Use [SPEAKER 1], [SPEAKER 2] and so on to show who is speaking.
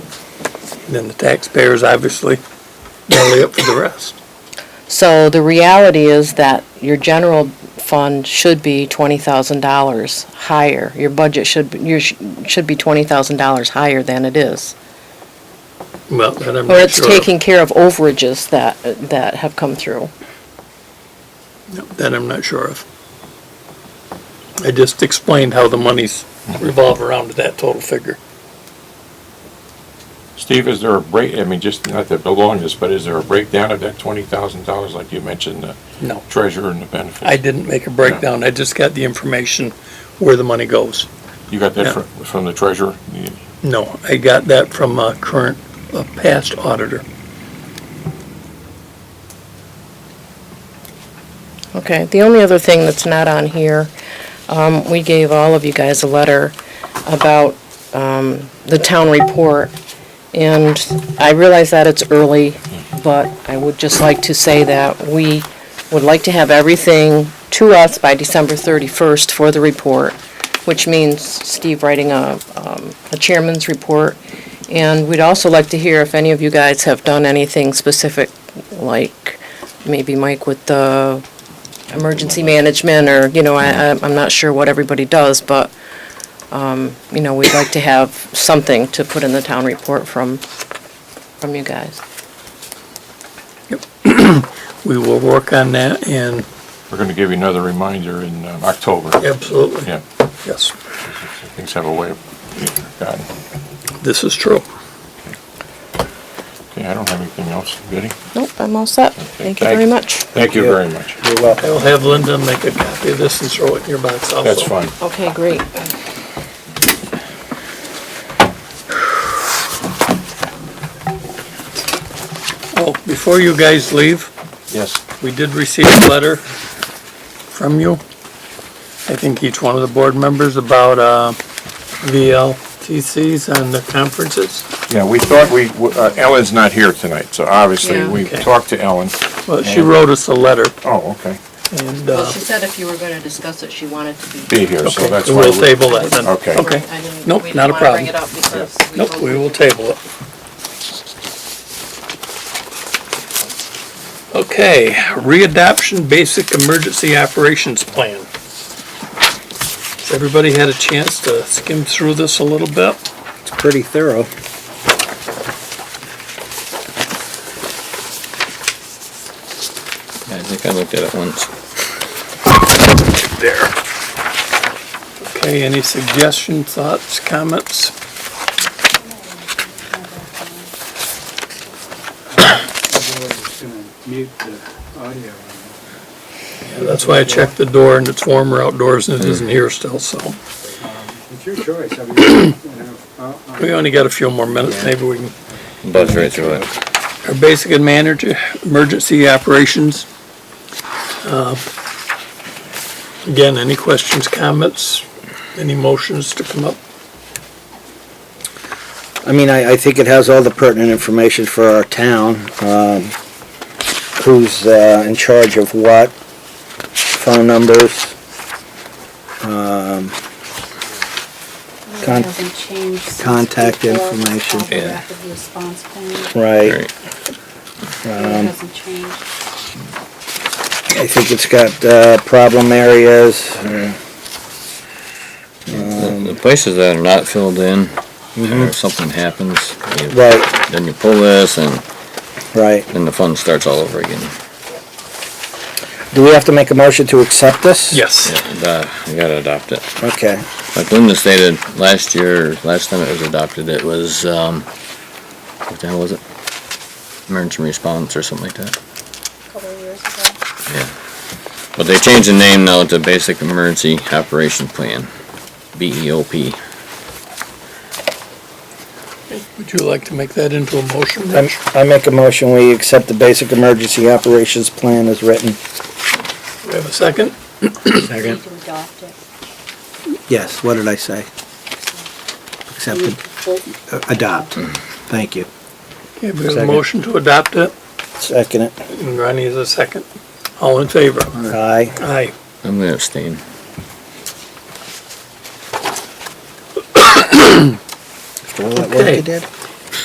[SPEAKER 1] And then the taxpayers obviously belly up for the rest.
[SPEAKER 2] So the reality is that your general fund should be twenty thousand dollars higher. Your budget should, be- your, sh- should be twenty thousand dollars higher than it is.
[SPEAKER 1] Well, that I'm
[SPEAKER 2] Or
[SPEAKER 1] not
[SPEAKER 2] it's
[SPEAKER 1] sure
[SPEAKER 2] taking
[SPEAKER 1] of.
[SPEAKER 2] care of overages that, that have come through.
[SPEAKER 1] That I'm not sure of. I just explained how the monies revolve around to that total figure.
[SPEAKER 3] Steve, is there a break, I mean, just not to belong this, but is there a breakdown of that twenty thousand dollars, like you mentioned, the
[SPEAKER 1] No,
[SPEAKER 3] treasurer and the benefits?
[SPEAKER 1] I didn't make a breakdown. I just got the information where the money goes.
[SPEAKER 3] You got
[SPEAKER 1] Yeah.
[SPEAKER 3] that from, from the treasurer? You-
[SPEAKER 1] No, I got that from a current, a past auditor.
[SPEAKER 2] Okay, the only other thing that's not on here, um, we gave all of you guys a letter about, um, the town report. And I realize that it's early, but I would just like to say that we would like to have everything to us by December thirty-first for the report, which means Steve writing a, um, a chairman's report. And we'd also like to hear if any of you guys have done anything specific, like maybe Mike with the emergency management, or, you know, I, I- I'm not sure what everybody does, but, um, you know, we'd like to have something to put in the town report from, from you guys.
[SPEAKER 1] We will work on that and.
[SPEAKER 3] We're gonna give you another reminder in um, October.
[SPEAKER 1] Absolutely.
[SPEAKER 3] Yeah,
[SPEAKER 1] Yes,
[SPEAKER 3] things have a way of, God,
[SPEAKER 1] this is true.
[SPEAKER 3] okay, I don't have anything else, Goody.
[SPEAKER 2] Nope, I'm all set. Thank you very much.
[SPEAKER 3] Thank you very much.
[SPEAKER 4] You're welcome.
[SPEAKER 1] I'll have Linda make a copy of this and throw it in your box also.
[SPEAKER 3] That's fine.
[SPEAKER 2] Okay, great.
[SPEAKER 1] Uh, Oh, before you guys leave,
[SPEAKER 3] Yes.
[SPEAKER 1] we did receive a letter from you. I think each one of the board members about uh, VLTCs and the conferences.
[SPEAKER 3] Yeah, we thought we, uh, Ellen's not here tonight, so obviously
[SPEAKER 2] Yeah.
[SPEAKER 3] we
[SPEAKER 1] Okay.
[SPEAKER 3] talked to Ellen.
[SPEAKER 1] Well, she wrote us a letter
[SPEAKER 3] Oh, okay.
[SPEAKER 1] and uh,
[SPEAKER 2] said if you were gonna discuss it, she wanted to
[SPEAKER 3] Be here, so that's why.
[SPEAKER 1] we'll
[SPEAKER 3] we-
[SPEAKER 1] table that then.
[SPEAKER 3] Okay.
[SPEAKER 1] Okay. Nope, not a problem. Nope, we will table it. Okay, readoption basic emergency operations plan. Has everybody had a chance to skim through this a little bit?
[SPEAKER 4] It's pretty thorough.
[SPEAKER 5] I think I looked at it once.
[SPEAKER 1] There. Okay, any suggestions, thoughts, comments?
[SPEAKER 4] Mute the audio.
[SPEAKER 1] That's why I checked the door and it's warmer outdoors and it isn't here still, so.
[SPEAKER 4] Um, It's your choice. I mean, you know, I'll- I'll-
[SPEAKER 1] We only got a few more minutes, maybe we can
[SPEAKER 5] Buzzed right through it.
[SPEAKER 1] our basic and manager, emergency operations. Uh, Again, any questions, comments, any motions to come up?
[SPEAKER 4] I mean, I, I think it has all the pertinent information for our town, um, who's, uh, in charge of what, phone numbers, um, Con-
[SPEAKER 6] Doesn't change since
[SPEAKER 4] contact
[SPEAKER 6] before
[SPEAKER 4] information.
[SPEAKER 6] of the
[SPEAKER 1] Yeah.
[SPEAKER 6] Rapid response plan.
[SPEAKER 4] right. Um,
[SPEAKER 6] It
[SPEAKER 5] Great.
[SPEAKER 6] doesn't change.
[SPEAKER 4] I think it's got, uh, problem areas,
[SPEAKER 5] Um, The the places that are not filled in, or if something happens, you-
[SPEAKER 4] right,
[SPEAKER 5] then you pull this and
[SPEAKER 4] right.
[SPEAKER 5] then the fun starts all over again.
[SPEAKER 4] Do we have to make a motion to accept this?
[SPEAKER 1] Yes.
[SPEAKER 5] And, uh, You gotta adopt it.
[SPEAKER 4] Okay,
[SPEAKER 5] Like Linda stated, last year, last time it was adopted, it was, um, what the hell was it? Emergency response or something like that.
[SPEAKER 6] Couple of years ago.
[SPEAKER 5] Yeah. But they changed the name now to Basic Emergency Operation Plan, E BEOP.
[SPEAKER 1] Would you like to make that into a motion,
[SPEAKER 4] I,
[SPEAKER 1] Rich?
[SPEAKER 4] I make a motion, we accept the basic emergency operations plan as written.
[SPEAKER 1] Do we have a second?
[SPEAKER 6] You need to adopt it.
[SPEAKER 4] Yes, what did I say?
[SPEAKER 6] You
[SPEAKER 4] Accept,
[SPEAKER 6] need
[SPEAKER 4] it-
[SPEAKER 6] to vote.
[SPEAKER 4] uh, adopt, thank you.
[SPEAKER 1] Okay, we have a
[SPEAKER 4] Second.
[SPEAKER 1] motion to adopt it,
[SPEAKER 4] Second it.
[SPEAKER 1] and Ronnie is a second. All in favor?
[SPEAKER 4] Aye.
[SPEAKER 1] Aye.
[SPEAKER 5] I'm gonna abstain.
[SPEAKER 4] After all that work
[SPEAKER 1] Okay.
[SPEAKER 4] you did?